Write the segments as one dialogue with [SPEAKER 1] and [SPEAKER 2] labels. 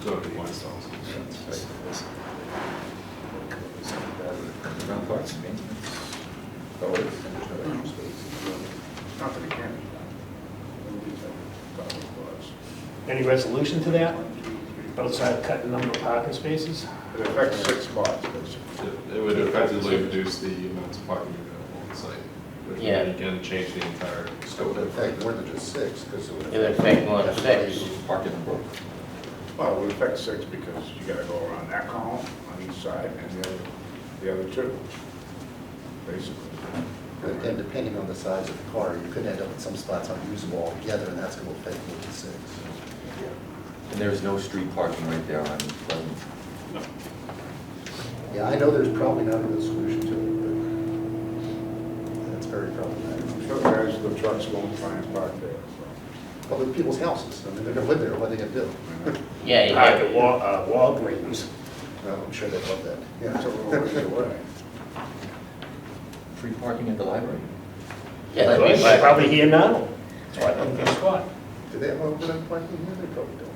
[SPEAKER 1] Go to one stall.
[SPEAKER 2] Ground parts, maintenance, always, and trash space. Not that it can be done.
[SPEAKER 3] Any resolution to that? Outside of cutting number of parking spaces?
[SPEAKER 2] It affects six spots, basically.
[SPEAKER 1] It would effectively reduce the amount of parking available on site, which would
[SPEAKER 4] Yeah.
[SPEAKER 1] again change the entire
[SPEAKER 2] So it would affect more than just six, because it would.
[SPEAKER 4] It would affect more than six.
[SPEAKER 2] Parking in Brooklyn.
[SPEAKER 5] Well, it would affect six because you gotta go around that column on each side and the other, the other two, basically.
[SPEAKER 6] But then depending on the size of the car, you could end up with some spots unusable altogether, and that's going to affect more than six.
[SPEAKER 7] And there's no street parking right there on Pleasant.
[SPEAKER 6] Yeah, I know there's probably not a good solution to it, but that's very problematic.
[SPEAKER 5] I'm sure the guys with the trucks won't try and park there, so.
[SPEAKER 6] But with people's houses, I mean, they're going to live there, what are they going to do?
[SPEAKER 5] you know.
[SPEAKER 4] Yeah, you
[SPEAKER 3] Park
[SPEAKER 4] have,
[SPEAKER 3] at Wa- uh, Walgreens.
[SPEAKER 6] No, I'm sure they love that.
[SPEAKER 5] That's a little ways away.
[SPEAKER 7] Free parking at the library.
[SPEAKER 4] yeah, that'd be
[SPEAKER 3] They're
[SPEAKER 4] fine.
[SPEAKER 3] Probably here now. That's why I don't guess what.
[SPEAKER 6] Do they have open parking here? They probably don't.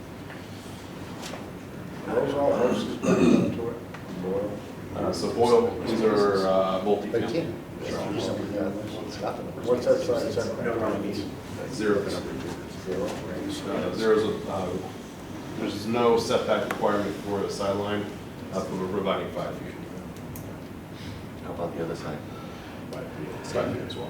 [SPEAKER 5] Those all horses back up to it, Boyle.
[SPEAKER 1] Uh, So Boyle, these are uh,
[SPEAKER 6] But you
[SPEAKER 1] multi-family.
[SPEAKER 6] can, if you do something, you know, stop them.
[SPEAKER 5] What's that side setback?
[SPEAKER 1] Zero for number
[SPEAKER 5] Zero, range.
[SPEAKER 1] Uh, There is, a, uh, there's no setback requirement for the sideline, uh, but we're providing five feet.
[SPEAKER 7] How about the other side?
[SPEAKER 1] Five feet. Five feet as well.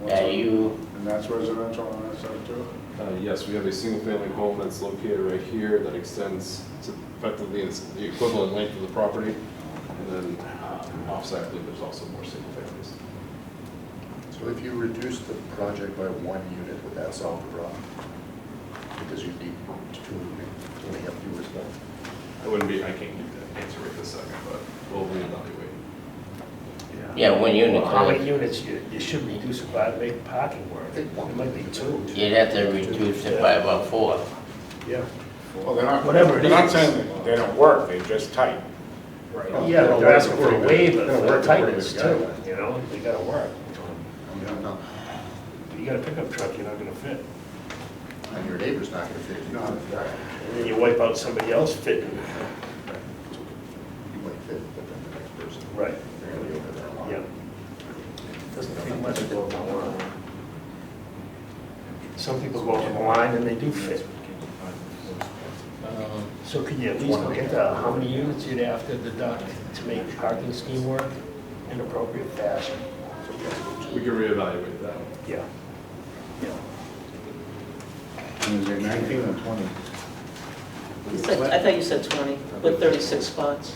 [SPEAKER 5] What's
[SPEAKER 4] Yeah,
[SPEAKER 5] that?
[SPEAKER 4] you,
[SPEAKER 5] And that's residential on that side too?
[SPEAKER 1] Uh, Yes, we have a single-family home that's located right here that extends to effectively it's the equivalent length of the property. And then uh, offsite, I believe there's also more single families.
[SPEAKER 6] So if you reduce the project by one unit, would that solve the problem? Because you'd need two, you only have two responses.
[SPEAKER 1] I wouldn't be, I can't give that answer right this second, but we'll reevaluate.
[SPEAKER 4] yeah, one unit,
[SPEAKER 3] Well, How many
[SPEAKER 4] uh,
[SPEAKER 3] units you, you should reduce it by, make parking work. It might be two.
[SPEAKER 4] you'd have to reduce it by about four.
[SPEAKER 3] Yeah.
[SPEAKER 5] Well, they're not,
[SPEAKER 3] Whatever it
[SPEAKER 5] they're not
[SPEAKER 3] is.
[SPEAKER 5] saying that they don't work, they're just tight.
[SPEAKER 3] Yeah, but they're asking for a waiver
[SPEAKER 6] Gotta
[SPEAKER 3] for
[SPEAKER 6] work according to
[SPEAKER 3] tightness
[SPEAKER 6] the
[SPEAKER 3] too,
[SPEAKER 6] guidelines.
[SPEAKER 3] you know? They gotta work.
[SPEAKER 6] You don't know.
[SPEAKER 3] You got a pickup truck, you're not gonna fit.
[SPEAKER 6] And your neighbor's not gonna fit it.
[SPEAKER 5] No, it's right.
[SPEAKER 3] And then you wipe out somebody else fitting.
[SPEAKER 6] You might fit, but then the next person.
[SPEAKER 3] Right.
[SPEAKER 6] They're gonna be over there a lot.
[SPEAKER 3] Yeah. Doesn't fit much to go on the line. Some people go on the line and they do fit. So can you at least Um, look at uh, how many units you'd have to deduct to make the parking scheme work in appropriate fashion?
[SPEAKER 1] We can reevaluate that.
[SPEAKER 3] Yeah. Yeah.
[SPEAKER 5] Is it nineteen or twenty?
[SPEAKER 8] You said- I thought you said 20, with 36 spots.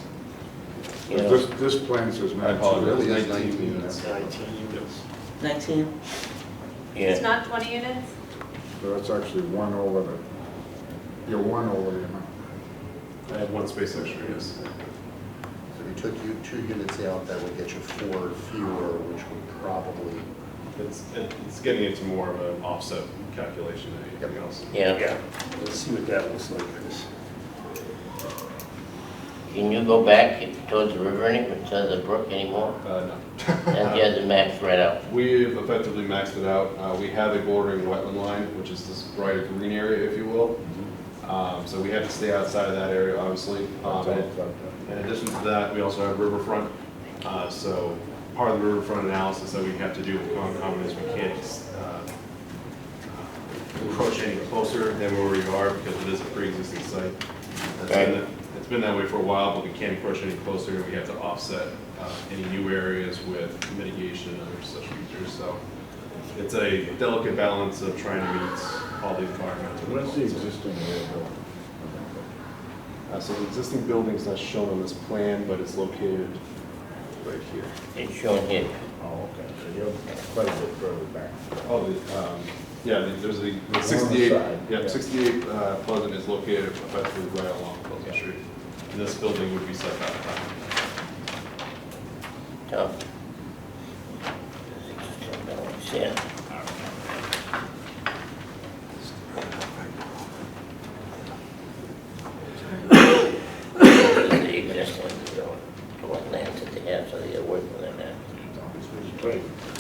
[SPEAKER 8] You know,
[SPEAKER 5] This, this plan says
[SPEAKER 1] I
[SPEAKER 5] nineteen.
[SPEAKER 1] apologize,
[SPEAKER 6] really is
[SPEAKER 1] 19
[SPEAKER 6] 19
[SPEAKER 1] units.
[SPEAKER 3] Nineteen units.
[SPEAKER 8] 19?
[SPEAKER 4] Yeah,
[SPEAKER 9] It's not 20 units?
[SPEAKER 5] So that's actually one over the, you're one over the amount.
[SPEAKER 1] I have one space extra, yes.
[SPEAKER 6] So if you took you two units out, that would get you four fewer, which would probably,
[SPEAKER 1] It's, it's getting into more of an offset calculation than anything else.
[SPEAKER 4] yeah.
[SPEAKER 3] Yeah, let's see what that looks like, Chris.
[SPEAKER 4] Can you go back towards the river any, towards the brook anymore?
[SPEAKER 1] Uh,
[SPEAKER 4] That has the maps right out.
[SPEAKER 1] We've effectively maxed it out. Uh, We have a bordering wetland line, which is this brighter green area, if you will. Um, So we have to stay outside of that area, obviously. Um, and In addition to that, we also have riverfront. Uh, So part of the riverfront analysis that we have to do with Concom is we can't uh, approach any closer than where we are because it is a pre-existing site. It's been
[SPEAKER 4] Right.
[SPEAKER 1] that- It's been that way for a while, but we can't approach any closer. We have to offset uh, any new areas with mitigation and other such features. So it's a delicate balance of trying to meet all the environmental.
[SPEAKER 2] What's the
[SPEAKER 1] requirements.
[SPEAKER 2] existing area going?
[SPEAKER 1] Uh, So the existing building's not shown on this plan, but it's located right here.
[SPEAKER 4] It's shown here.
[SPEAKER 2] Oh, okay, so you're quite a bit further back.
[SPEAKER 1] Oh, the, um, yeah, the- there's the the
[SPEAKER 2] the
[SPEAKER 1] 68,
[SPEAKER 2] side,
[SPEAKER 1] yeah,
[SPEAKER 2] yeah.
[SPEAKER 1] 68 uh, Pleasant is located effectively right along Pleasant Street. And this building would be set back.
[SPEAKER 4] Tom? Yeah. The existing, you know, what lands that they have, so they gotta work with that.
[SPEAKER 2] Right.